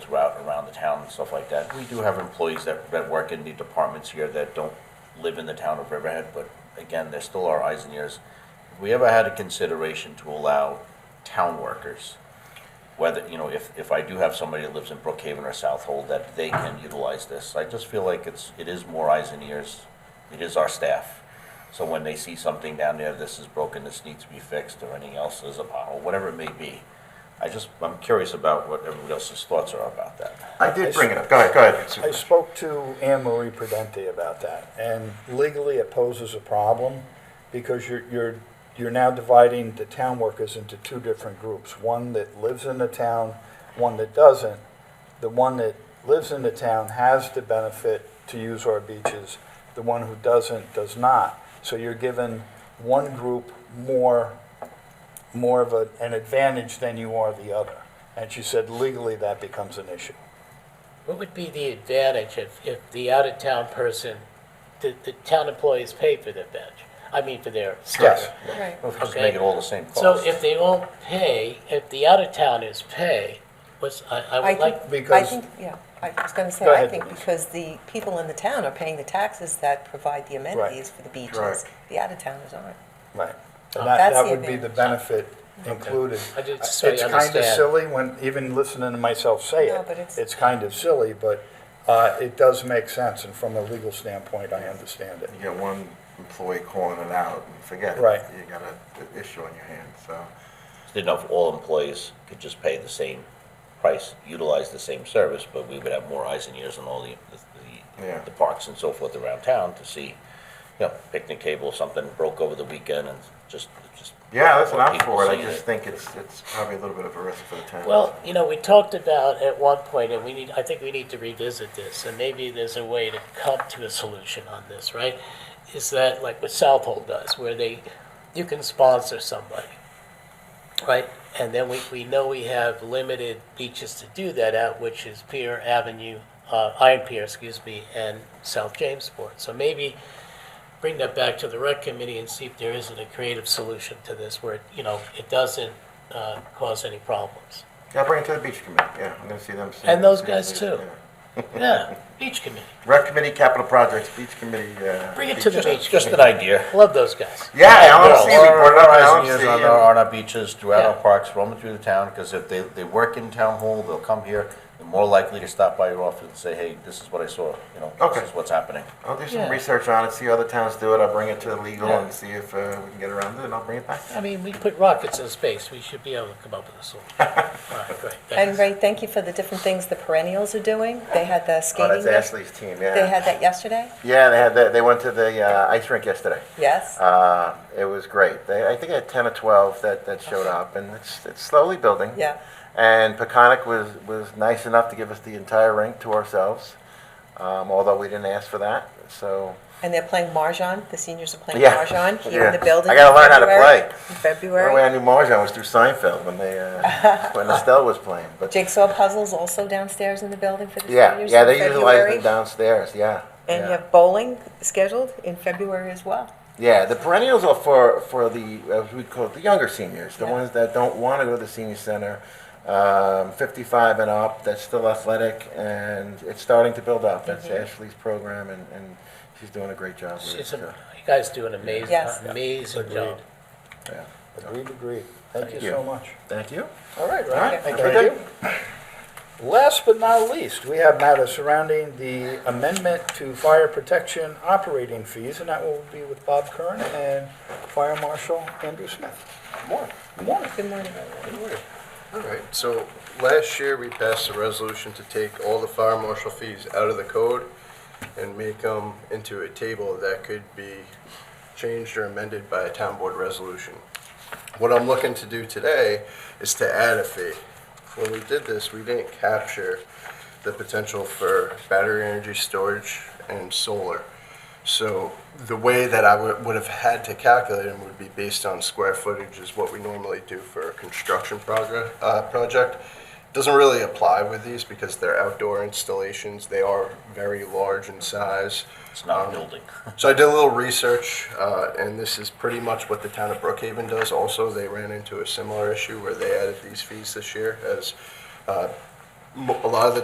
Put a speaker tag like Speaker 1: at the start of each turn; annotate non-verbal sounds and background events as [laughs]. Speaker 1: and stuff like that. We do have employees that, that work in the departments here that don't live in the town of Riverhead, but again, they're still our eyes and ears. If we ever had a consideration to allow town workers, whether, you know, if, if I do have somebody that lives in Brookhaven or South Hold, that they can utilize this. I just feel like it's, it is more eyes and ears, it is our staff. So when they see something down there, this is broken, this needs to be fixed, or anything else, there's a pothole, whatever it may be. I just, I'm curious about what everybody else's thoughts are about that.
Speaker 2: I did bring it up. Go ahead, go ahead.
Speaker 3: I
Speaker 2: Supervisor.
Speaker 3: spoke to Anne Marie Prudente about that, and legally it poses a problem because you're, you're, you're now dividing the town workers into two different groups, one that lives in the town, one that doesn't. The one that lives in the town has the benefit to use our beaches, the one who doesn't does not. So you're giving one group more, more of a, an advantage than you are the other. And she said legally that becomes an issue.
Speaker 4: What would be the advantage if, if the out-of-town person, the, the town employees pay for their bench? I mean, for their
Speaker 3: Yes.
Speaker 4: stuff.
Speaker 5: Right.
Speaker 1: Well, Just
Speaker 4: Okay.
Speaker 1: make it all the same cost.
Speaker 4: So if they won't pay, if the out-of-towners pay, what's, I, I
Speaker 5: I
Speaker 4: would like,
Speaker 5: think, I
Speaker 3: because-
Speaker 5: think, yeah, I was going to say,
Speaker 3: Go
Speaker 5: I
Speaker 3: ahead,
Speaker 5: think
Speaker 3: Denise.
Speaker 5: because the people in the town are paying the taxes that provide the amenities for the
Speaker 2: Right.
Speaker 5: beaches. The out-of-towners aren't.
Speaker 3: Right.
Speaker 4: Oh.
Speaker 3: And that,
Speaker 5: That's
Speaker 3: that
Speaker 5: the
Speaker 3: would be the
Speaker 5: advantage.
Speaker 3: benefit included.
Speaker 4: I did- so you
Speaker 3: It's kind of
Speaker 4: understand.
Speaker 3: silly when, even listening to myself say
Speaker 5: No,
Speaker 3: it,
Speaker 5: but it's-
Speaker 3: it's kind of silly, but uh, it does make sense, and from a legal standpoint, I understand it.
Speaker 2: You get one employee calling it out and forget it.
Speaker 3: Right.
Speaker 2: You got an issue on your hands, so.
Speaker 1: Didn't know if all employees could just pay the same price, utilize the same service, but we would have more eyes and ears on all the, the-
Speaker 2: Yeah.
Speaker 1: the, the parks and so forth around town to see, you know, picnic table, something broke over the weekend and just, just.
Speaker 2: Yeah, listen,
Speaker 1: more
Speaker 2: I'm
Speaker 1: people
Speaker 2: for it. I
Speaker 1: seeing
Speaker 2: just think it's, it's probably a little bit of a risk for the town.
Speaker 4: well, you know, we talked about at one point, and we need, I think we need to revisit this, and maybe there's a way to come to a solution on this, right? Is that like what Southhold does, where they, you can sponsor somebody, right? And then we, we know we have limited beaches to do that at, which is Pier Avenue, uh, Iron Pier, excuse me, and South Jamesport. So maybe bring that back to the rec committee and see if there isn't a creative solution to this where, you know, it doesn't, uh, cause any problems.
Speaker 2: Yeah, bring it to the beach committee. Yeah, I'm gonna see them soon.
Speaker 4: And those
Speaker 2: See
Speaker 4: guys
Speaker 2: if they-
Speaker 4: too.
Speaker 2: yeah.
Speaker 4: Yeah, beach committee.
Speaker 2: Rec committee, capital projects, beach committee, uh.
Speaker 4: Bring it to the
Speaker 2: beach-
Speaker 4: beach.
Speaker 1: Just an
Speaker 4: committee.
Speaker 1: idea.
Speaker 4: Love those guys.
Speaker 2: Yeah,
Speaker 1: Well,
Speaker 2: LMC, we
Speaker 1: our-
Speaker 2: brought it up,
Speaker 1: our eyes and ears
Speaker 2: LMC.
Speaker 1: On
Speaker 2: yeah.
Speaker 1: our, on our beaches, throughout our
Speaker 4: Yeah.
Speaker 1: parks, roaming through the town, because if they, they work in town hall, they'll come here, they're more likely to stop by your office and say, hey, this is what I saw, you know,
Speaker 2: Okay.
Speaker 1: this is what's happening.
Speaker 2: I'll do
Speaker 4: Yeah.
Speaker 2: some research on it, see how other towns do it. I'll bring it to the legal
Speaker 1: Yeah.
Speaker 2: and see if uh, we can get around it, and I'll bring it back.
Speaker 4: I mean, we put rockets in space. We should be able to come up with
Speaker 1: [laughs]
Speaker 4: a solution. All right, great.
Speaker 5: And
Speaker 4: thanks.
Speaker 5: Ray, thank you for the different things the perennials are doing. They had the
Speaker 2: Oh,
Speaker 5: skating.
Speaker 2: that's
Speaker 5: rink.
Speaker 2: Ashley's team, yeah.
Speaker 5: They had that yesterday?
Speaker 2: Yeah, they had that. They went to the uh, ice rink yesterday.
Speaker 5: Yes?
Speaker 2: Uh, it was great. They, I think I had 10 or 12 that, that showed up, and it's, it's slowly building.
Speaker 5: Yeah.
Speaker 2: And Peconic was, was nice enough to give us the entire rink to ourselves, um, although we didn't ask for that. So,
Speaker 5: And they're playing Marjan. The seniors are playing
Speaker 2: Yeah. [laughs]
Speaker 5: Marjan here in
Speaker 2: Yeah.
Speaker 5: the building.
Speaker 2: I gotta
Speaker 5: in
Speaker 2: learn how to play.
Speaker 5: February- In
Speaker 2: the only way
Speaker 5: February.
Speaker 2: I knew Marjan was through Seinfeld when, they,
Speaker 5: [laughs]
Speaker 2: uh, when Estelle was playing. But
Speaker 5: Jigsaw puzzles also downstairs in the building for the
Speaker 2: yeah,
Speaker 5: seniors
Speaker 2: yeah,
Speaker 5: in
Speaker 2: they
Speaker 5: February.
Speaker 2: utilize them downstairs, yeah.
Speaker 5: And
Speaker 2: yeah.
Speaker 5: you have bowling scheduled in February as well.
Speaker 2: Yeah, the perennials are for for the uh, we call it the younger seniors, the
Speaker 5: Yeah.
Speaker 2: ones that don't want to go to the senior center, um, 55 and up. That's still athletic, and it's starting to build up. That's Ashley's program, and, and she's doing Mm-hmm. a great job. With it,
Speaker 4: It's a-
Speaker 2: so,
Speaker 4: You guys do an amazing,
Speaker 5: Yes.
Speaker 4: amazing
Speaker 3: Agreed.
Speaker 4: job.
Speaker 2: yeah.
Speaker 3: Agreed, agreed. Thank you
Speaker 2: you.
Speaker 3: so much.
Speaker 2: Thank you.
Speaker 3: All right,
Speaker 2: All right,
Speaker 3: Ryan.
Speaker 2: thank you.
Speaker 3: Last but not least, we have matters surrounding the amendment to fire protection operating fees, and that will be with Bob Kern and Fire Marshal Andrew Smith. Good morning. Good morning.
Speaker 5: Good morning.
Speaker 6: All right, so last year, we passed a resolution to take all the fire marshal fees out of the code and make them into a table that could be changed or amended by a town board resolution. What I'm looking to do today is to add a fee. When we did this, we didn't capture the potential for battery energy storage and solar. So the way that I would, would have had to calculate them would be based on square footage is what we normally do for a construction progress, uh, project. Doesn't really apply with these because they're outdoor installations. They are very large in size.
Speaker 1: It's not a
Speaker 6: Um,
Speaker 1: building.
Speaker 6: so I did a little research, uh, and this is pretty much what the town of Brookhaven does also. They ran into a similar issue where they added these fees this year as, uh, mo- a lot of the